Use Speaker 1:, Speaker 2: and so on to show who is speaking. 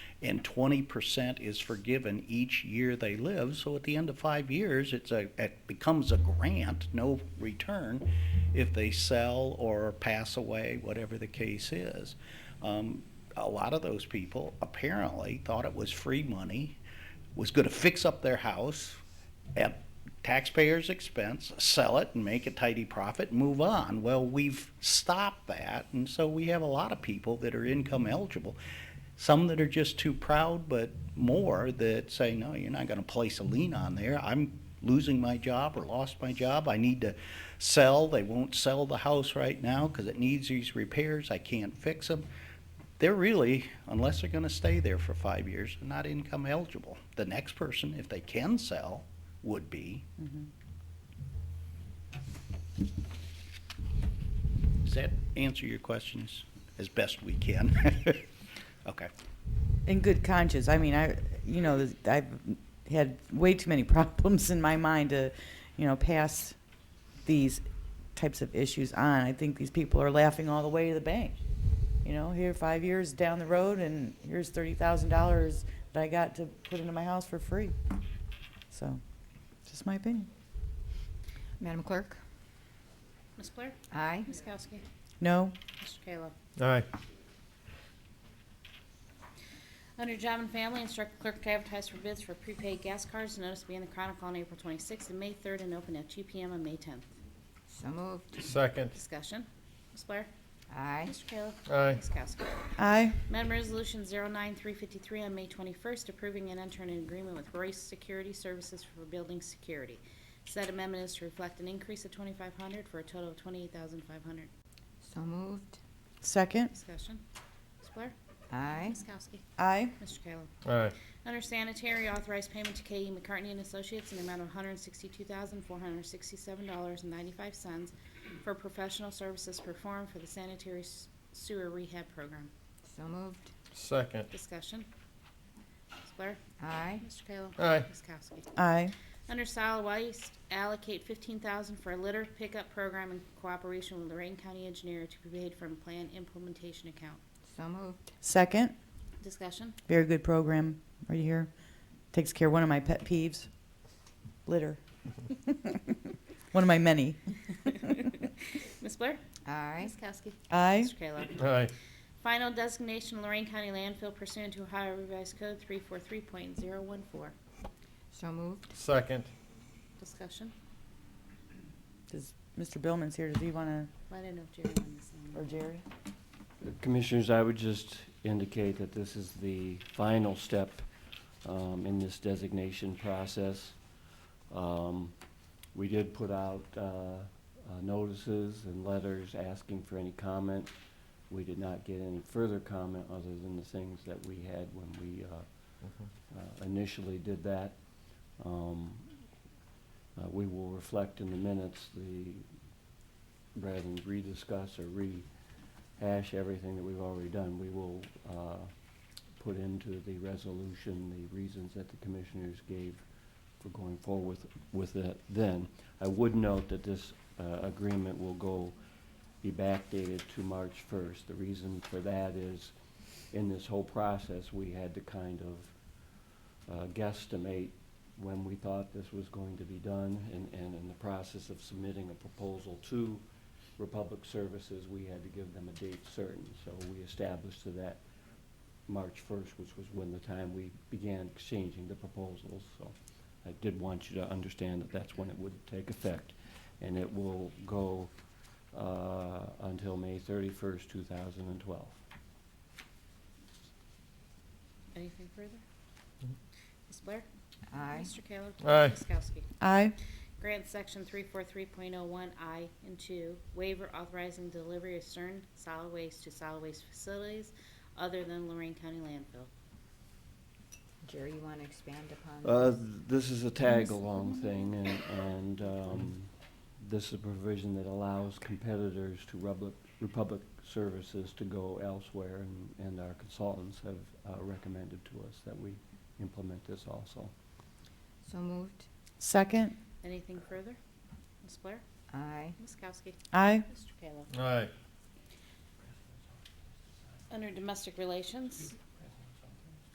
Speaker 1: and twenty percent is forgiven each year they live. So at the end of five years, it's a, it becomes a grant, no return, if they sell or pass away, whatever the case is. Um, a lot of those people apparently thought it was free money, was going to fix up their house at taxpayers' expense, sell it and make a tidy profit, move on. Well, we've stopped that, and so we have a lot of people that are income eligible. Some that are just too proud, but more that say, no, you're not going to place a lien on there. I'm losing my job or lost my job. I need to sell. They won't sell the house right now because it needs these repairs. I can't fix them. They're really, unless they're going to stay there for five years, they're not income eligible. The next person, if they can sell, would be. Does that answer your questions as best we can? Okay.
Speaker 2: In good conscience, I mean, I, you know, I've had way too many problems in my mind to, you know, pass these types of issues on. I think these people are laughing all the way to the bank. You know, here five years down the road, and here's thirty thousand dollars that I got to put into my house for free. So, just my opinion.
Speaker 3: Madam Clerk?
Speaker 4: Ms. Blair?
Speaker 3: Aye.
Speaker 4: Ms. Kowski?
Speaker 2: No,
Speaker 4: Mr. Kayla?
Speaker 5: Aye.
Speaker 4: Under Job and Family, instruct clerk to advertise for bids for prepaid gas cards. The Notice to be in the Chronicle on April 26th and May 3rd and open at 2 PM on May 10th.
Speaker 3: So moved.
Speaker 5: Second.
Speaker 4: Discussion. Ms. Blair?
Speaker 3: Aye.
Speaker 4: Mr. Kayla?
Speaker 5: Aye.
Speaker 4: Ms. Kowski?
Speaker 2: I,
Speaker 4: Amendment Resolution 09353 on May 21st, approving and entering an agreement with Royce Security Services for building security. Said amendment is to reflect an increase of 2,500 for a total of 28,500.
Speaker 3: So moved.
Speaker 2: second,
Speaker 4: Discussion. Ms. Blair?
Speaker 3: Aye.
Speaker 4: Ms. Kowski?
Speaker 2: I,
Speaker 4: Mr. Kayla?
Speaker 5: Aye.
Speaker 4: Under sanitary, authorized payment to K.E. McCartney and Associates in the amount of $162,467.95 for professional services performed for the sanitary s- sewer rehab program.
Speaker 3: So moved.
Speaker 5: Second.
Speaker 4: Discussion. Ms. Blair?
Speaker 3: Aye.
Speaker 4: Mr. Kayla?
Speaker 5: Aye.
Speaker 4: Ms. Kowski?
Speaker 2: I,
Speaker 4: Under solid waste, allocate $15,000 for a litter pickup program in cooperation with Lorraine County Engineer to be paid from Plan Implementation Account.
Speaker 3: So moved.
Speaker 2: second.
Speaker 4: Discussion.
Speaker 2: Very good program right here. Takes care of one of my pet peeves litter. one of my many.
Speaker 4: Ms. Blair?
Speaker 3: Aye.
Speaker 4: Ms. Kowski?
Speaker 2: I,
Speaker 4: Mr. Kayla?
Speaker 5: Aye.
Speaker 4: Final designation Lorraine County landfill pursuant to Ohio Revised Code 343.014.
Speaker 3: So moved.
Speaker 5: Second.
Speaker 4: Discussion?
Speaker 2: does, Mr. Billman's here. Does he want to,
Speaker 4: Well, I didn't know if Jerry wanted to say
Speaker 2: or
Speaker 4: anything.
Speaker 2: Jerry?
Speaker 6: Commissioners, I would just indicate that this is the final step um, in this designation process. Um, We did put out uh, uh, notices and letters asking for any comment. We did not get any further comment other than the things that we had when we uh, uh, initially did that. Um, uh, We will reflect in the minutes the, rather than rediscuss or rehash everything that we've already done, we will uh, put into the resolution the reasons that the commissioners gave for going forward with with it then. I would note that this uh, agreement will go, be backdated to March 1st. The reason for that is, in this whole process, we had to kind of uh, guesstimate when we thought this was going to be done, and, and in the process of submitting a proposal to Republic Services, we had to give them a date certain, so we established that March first, which was when the time we began exchanging the proposals, so I did want you to understand that that's when it would take effect, and it will go, uh, until May thirty-first, two thousand and twelve.
Speaker 4: Anything further? Ms. Blair?
Speaker 3: Aye.
Speaker 4: Mr. Kayla?
Speaker 5: Aye.
Speaker 4: Ms. Kowski?
Speaker 2: I,
Speaker 4: Grant Section 343.01I and 2, waiver authorizing delivery of certain solid waste to solid waste facilities other than Lorraine County landfill.
Speaker 3: Jerry, you want to expand upon?
Speaker 6: Uh, This is a tag-along thing, and, and um, this is a provision that allows competitors to Republic, Republic Services to go elsewhere, and, and our consultants have uh, recommended to us that we implement this also.
Speaker 3: So moved.
Speaker 2: second.
Speaker 4: Anything further? Ms. Blair?
Speaker 3: Aye.
Speaker 4: Ms. Kowski?
Speaker 2: I,
Speaker 4: Mr. Kayla?
Speaker 5: Aye.
Speaker 4: Under Domestic Relations,